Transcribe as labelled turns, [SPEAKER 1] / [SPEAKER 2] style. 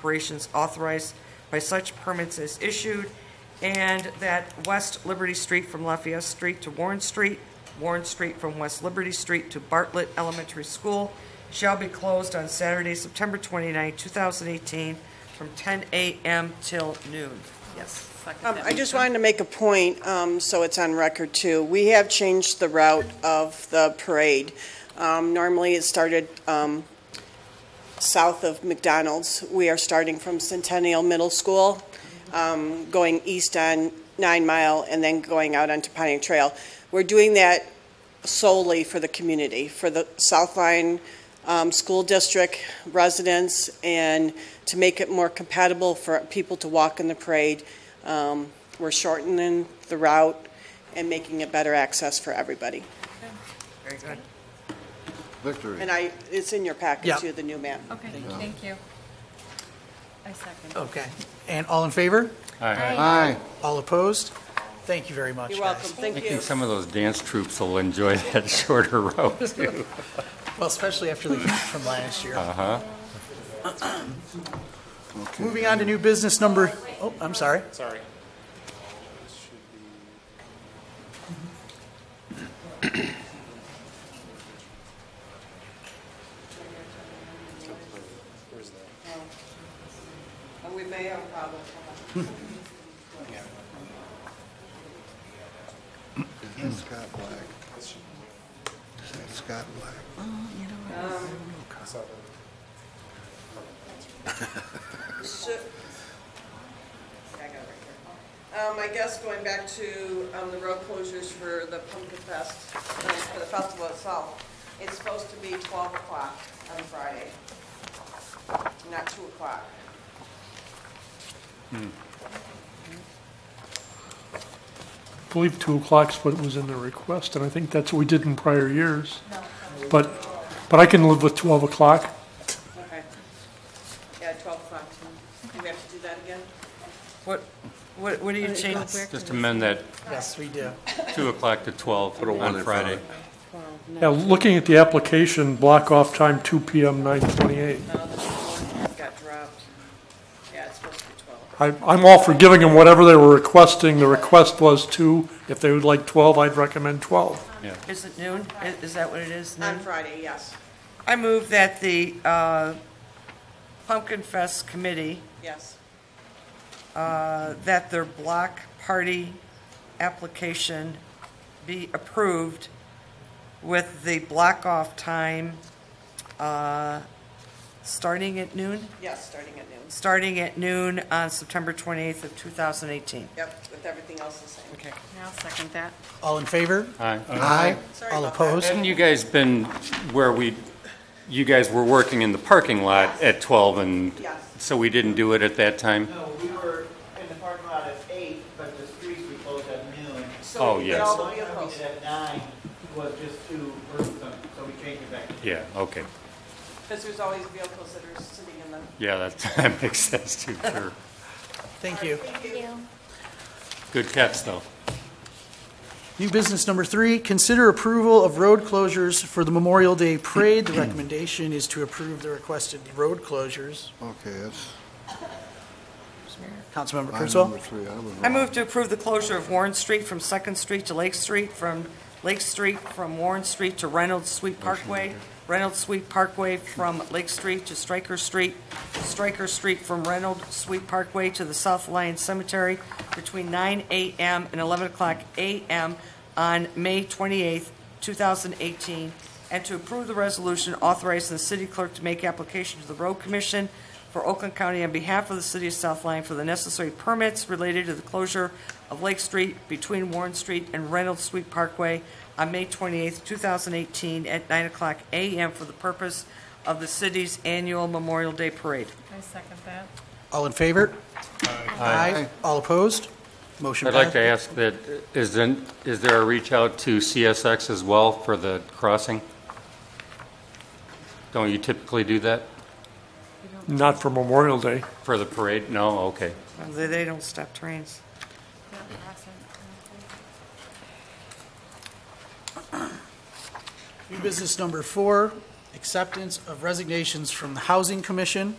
[SPEAKER 1] operations authorized by such permits as issued, and that West Liberty Street from Lafayette Street to Warren Street, Warren Street from West Liberty Street to Bartlett Elementary School shall be closed on Saturday, September 29, 2018, from 10 a.m. till noon. Yes.
[SPEAKER 2] Um, I just wanted to make a point, um, so it's on record too. We have changed the route of the parade. Um, normally it started, um, south of McDonald's. We are starting from Centennial Middle School, um, going east on Nine Mile and then going out onto Pontiac Trail. We're doing that solely for the community, for the South Line um, School District residents, and to make it more compatible for people to walk in the parade. Um, We're shortening the route and making it better access for everybody.
[SPEAKER 1] Very good.
[SPEAKER 3] Victory.
[SPEAKER 2] And I, it's in your
[SPEAKER 4] Yeah.
[SPEAKER 2] packet too, the new map.
[SPEAKER 5] Okay, thank you. I second.
[SPEAKER 4] Okay. And all in favor?
[SPEAKER 3] Aye.
[SPEAKER 4] All opposed? Thank you very much,
[SPEAKER 2] You're
[SPEAKER 4] guys.
[SPEAKER 2] welcome, thank
[SPEAKER 6] I
[SPEAKER 2] you.
[SPEAKER 6] think some of those dance troops will enjoy that shorter route, too.
[SPEAKER 4] Well, especially after the heat from last year.
[SPEAKER 6] Uh-huh.
[SPEAKER 3] Okay.
[SPEAKER 4] Moving on to new business number, oh, I'm sorry.
[SPEAKER 7] Sorry. Where's that?
[SPEAKER 2] We may have a problem.
[SPEAKER 3] That's Scott Black. That's Scott Black.
[SPEAKER 2] Um, I guess going back to, um, the road closures for the Pumpkin Fest, um, for the festival itself, it's supposed to be twelve o'clock on Friday, not two o'clock.
[SPEAKER 8] I believe 2 o'clock's what was in the request, and I think that's what we did in prior years. But, but I can live with 12 o'clock.
[SPEAKER 2] Okay. Yeah, twelve o'clock, do we have to do that again?
[SPEAKER 1] What, what what do you change?
[SPEAKER 6] Just amend that
[SPEAKER 4] Yes, we do.
[SPEAKER 6] 2 o'clock to 12 on Friday.
[SPEAKER 8] Now, looking at the application, block off time 2 PM, 9:28.
[SPEAKER 2] No, the one got dropped. Yeah, it's supposed to be twelve.
[SPEAKER 8] I- I'm all for giving them whatever they were requesting. The request was 2. If they would like 12, I'd recommend 12.
[SPEAKER 1] Is it noon? I- Is that what it is?
[SPEAKER 2] On
[SPEAKER 1] Noon?
[SPEAKER 2] Friday, yes,
[SPEAKER 1] I move that the uh, Pumpkin Fest Committee,
[SPEAKER 2] yes.
[SPEAKER 1] uh, that their block party application be approved with the block-off time uh, starting at noon,
[SPEAKER 2] Yes, starting at noon.
[SPEAKER 1] starting at noon on September 28th of 2018.
[SPEAKER 2] Yep, with everything else the same. Okay.
[SPEAKER 5] I'll second that.
[SPEAKER 4] All in favor?
[SPEAKER 6] Aye.
[SPEAKER 3] Aye.
[SPEAKER 2] Sorry
[SPEAKER 4] All
[SPEAKER 2] about that.
[SPEAKER 4] opposed?
[SPEAKER 6] Haven't you guys been where we, you guys were working in the parking lot at 12, and
[SPEAKER 2] Yes.
[SPEAKER 6] so we didn't do it at that time?
[SPEAKER 9] No, we were in the parking lot at eight, but the streets we closed at noon.
[SPEAKER 6] Oh, yes.
[SPEAKER 2] all-
[SPEAKER 9] The line that we did at nine was just to Burger King, so we changed it back to
[SPEAKER 6] Yeah, okay.
[SPEAKER 2] Because there's always vehicles that are sitting in the
[SPEAKER 6] Yeah, that's- that makes sense, too, sure.
[SPEAKER 4] Thank you.
[SPEAKER 6] Good catch, though.
[SPEAKER 4] New business number three, consider approval of road closures for the Memorial Day Parade. The recommendation is to approve the requested road closures.
[SPEAKER 3] Okay, that's
[SPEAKER 4] Councilmember
[SPEAKER 3] line
[SPEAKER 4] Kurtzwell?
[SPEAKER 3] number three. I was
[SPEAKER 1] I
[SPEAKER 3] wrong.
[SPEAKER 1] move to approve the closure of Warren Street from Second Street to Lake Street, from Lake Street, from Warren Street to Reynolds Sweet Parkway, Reynolds Sweet Parkway from Lake Street to Stryker Street, Stryker Street from Reynolds Sweet Parkway to the South Lion Cemetery between 9 a.m. and 11 o'clock a.m. on May 28th, 2018, and to approve the resolution authorizing the city clerk to make application to the road commission for Oakland County on behalf of the city of South Lyon for the necessary permits related to the closure of Lake Street between Warren Street and Reynolds Street Parkway on May 28, 2018, at 9 o'clock a.m. for the purpose of the city's annual Memorial Day Parade.
[SPEAKER 5] I second that.
[SPEAKER 4] All in favor? Aye. All opposed? Motion
[SPEAKER 6] I'd
[SPEAKER 4] passed.
[SPEAKER 6] like to ask that, is then- is there a reach out to CSX as well for the crossing? Don't you typically do that
[SPEAKER 8] Not for Memorial Day.
[SPEAKER 6] for the parade? No, okay.
[SPEAKER 1] They they don't stop trains.
[SPEAKER 4] New business number four, acceptance of resignations from the Housing Commission.